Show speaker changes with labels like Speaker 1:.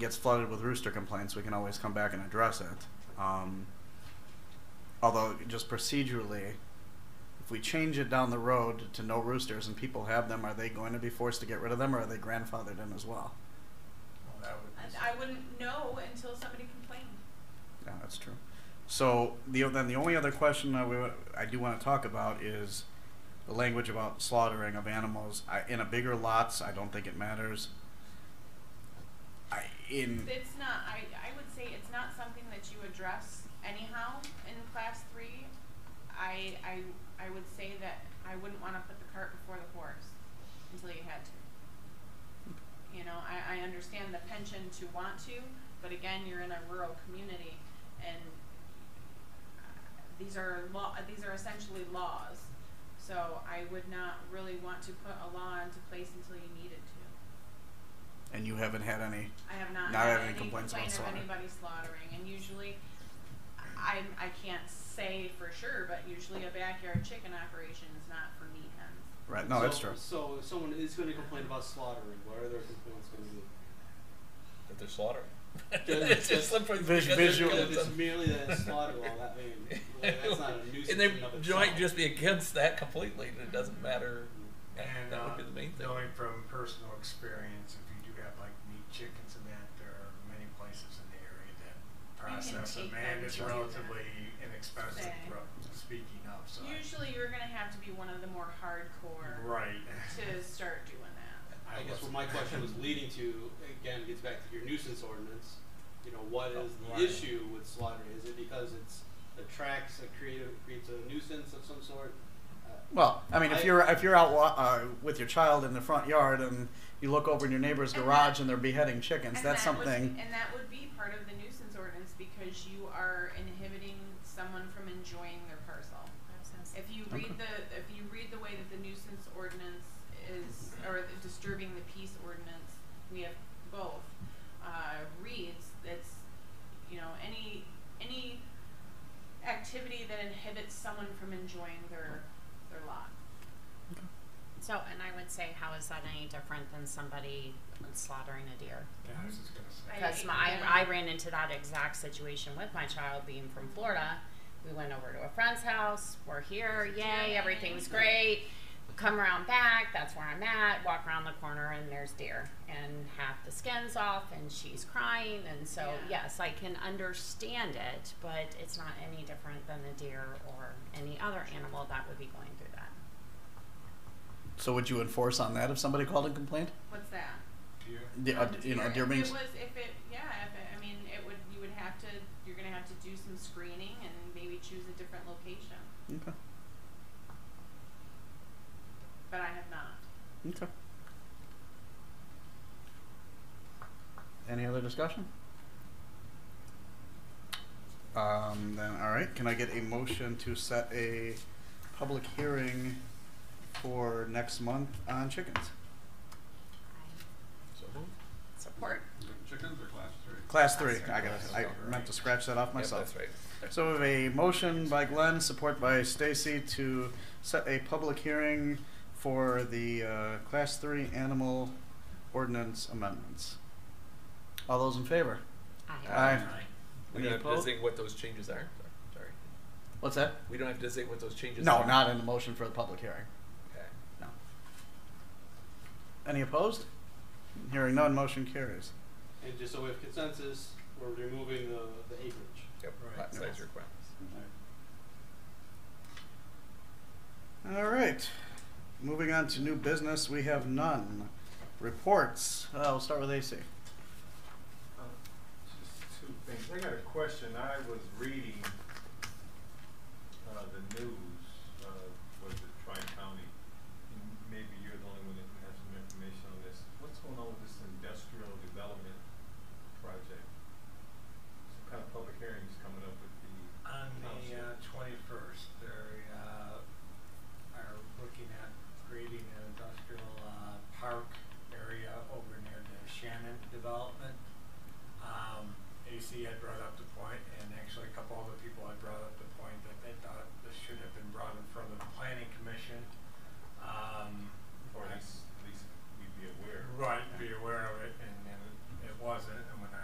Speaker 1: gets flooded with rooster complaints, we can always come back and address it. Um, although, just procedurally, if we change it down the road to no roosters and people have them, are they going to be forced to get rid of them, or are they grandfathered in as well?
Speaker 2: Well, that would
Speaker 3: And
Speaker 2: be-
Speaker 3: I wouldn't know until somebody complained.
Speaker 1: Yeah, that's true. So the then the only other question I, would, I do want to talk about is the language about slaughtering of animals I, in a bigger lots. I don't think it matters. I in
Speaker 3: It's not, I, I would say it's not something that you address anyhow in class three. I, I, I would say that I wouldn't wanna put the cart before the horse until you had to. You know, I, I understand the penchant to want to, but again, you're in a rural community and uh, these are law, these are essentially laws. So I would not really want to put a law into place until you needed to.
Speaker 1: and you haven't had any.
Speaker 3: I have not,
Speaker 1: Not
Speaker 3: had
Speaker 1: having
Speaker 3: any
Speaker 1: complaints about
Speaker 3: complaint of
Speaker 1: slaughter.
Speaker 3: anybody slaughtering, and usually, I I can't say for sure, but usually a backyard chicken operation is not for meat hens.
Speaker 1: Right? No,
Speaker 4: so,
Speaker 1: that's true.
Speaker 4: So if someone is going to complain about slaughtering, what are their complaints going to be?
Speaker 5: that they're slaughtering.
Speaker 4: Just-
Speaker 5: it's just
Speaker 4: just
Speaker 5: slippery
Speaker 1: vis-
Speaker 5: because it's-
Speaker 1: visual-
Speaker 4: Because
Speaker 5: because
Speaker 4: if
Speaker 5: it's-
Speaker 4: it's merely that it's slaughter, well, that I mean, well, that's not a nuisance.
Speaker 5: and they
Speaker 4: in and of
Speaker 5: might
Speaker 4: itself.
Speaker 5: just be against that completely, and it doesn't matter. That,
Speaker 2: And
Speaker 5: that
Speaker 2: uh,
Speaker 5: would be the main thing.
Speaker 2: knowing from personal experience, if you do have like meat chickens and that, there are many places in the area that process
Speaker 3: take
Speaker 2: them,
Speaker 3: them
Speaker 2: and
Speaker 3: to
Speaker 2: it's
Speaker 3: do that.
Speaker 2: relatively inexpensive.
Speaker 3: Say.
Speaker 2: ro- Speaking of, so I-
Speaker 3: Usually, you're gonna have to be one of the more hardcore
Speaker 2: right.
Speaker 3: to start doing that.
Speaker 4: I guess what
Speaker 2: wasn't.
Speaker 4: my question was leading to again gets back to your nuisance ordinance. You know, what is the
Speaker 2: Right.
Speaker 4: issue with slaughtering? Is it because it's attracts a creative creates a nuisance of some sort? Uh,
Speaker 1: Well, I mean, if
Speaker 4: I-
Speaker 1: you're if you're out wa- uh, with your child in the front yard and you look over in your neighbor's
Speaker 3: And
Speaker 1: garage
Speaker 3: that-
Speaker 1: and they're beheading chickens,
Speaker 3: and
Speaker 1: that's
Speaker 3: that would-
Speaker 1: something.
Speaker 3: and that would be part of the nuisance ordinance because you are inhibiting someone from enjoying their parcel. If you read the, if you read the way that the nuisance ordinance is, or the disturbing the peace ordinance, we have both, uh, reads, that's, you know, any, any activity that inhibits someone from enjoying their, their lot.
Speaker 6: So, and I would say, how is that any different than somebody slaughtering a deer?
Speaker 2: Yeah, I was just gonna say.
Speaker 6: Because my, I, I ran into that exact situation with my child being from Florida. We went over to a friend's house. We're here. Yay. Everything's great. Come around back. That's where I'm at. Walk around the corner and there's deer and half the skin's off and she's crying. And so,
Speaker 3: Yeah.
Speaker 6: yes, I can understand it, but it's not any different than a deer or any other animal that would be going through that.
Speaker 1: So would you enforce on that if somebody called and complained?
Speaker 3: What's that?
Speaker 2: Deer.
Speaker 1: The, uh,
Speaker 3: Um,
Speaker 1: you know,
Speaker 3: if
Speaker 1: deer being.
Speaker 3: It was, if it, yeah, if it, I mean, it would, you would have to, you're gonna have to do some screening and maybe choose a different location,
Speaker 1: Okay.
Speaker 3: but I have not.
Speaker 1: Okay. Any other discussion? Um, then, all right, can I get a motion to set a public hearing for next month on chickens?
Speaker 5: So
Speaker 6: Support.
Speaker 7: Chickens or class three?
Speaker 1: Class three, I got, I meant to scratch that off
Speaker 5: Yep,
Speaker 1: myself.
Speaker 5: that's right.
Speaker 1: So we have a motion by Glenn, support by Stacy to set a public hearing for the uh, Class 3 Animal Ordinance Amendments. All those in favor?
Speaker 6: Aye.
Speaker 1: Aye.
Speaker 5: We
Speaker 1: Any
Speaker 5: don't have to
Speaker 1: opposed?
Speaker 5: designate what those changes are. Sorry.
Speaker 1: What's that?
Speaker 5: We don't have to designate what those changes are.
Speaker 1: No, not in the motion for the public hearing.
Speaker 5: Okay.
Speaker 1: No. Any opposed? Hearing none, motion carries.
Speaker 4: and just so we have consensus, we're removing the, the acreage.
Speaker 5: Yep.
Speaker 2: Right.
Speaker 5: Lot size requirements.
Speaker 1: All right. Moving on to new business, we have none. Reports. Uh, we'll start with AC.
Speaker 8: Uh, Just two things. I got a question. I was reading uh, the news, uh, was it Tri-County? And Maybe you're the only one that can have some information on this. What's going on with this industrial development project? Some kind of public hearings coming up with the.
Speaker 2: On the uh,
Speaker 8: council.
Speaker 2: twenty-first, they uh, are looking at creating an industrial uh, park area over near the Shannon development. Um, Um,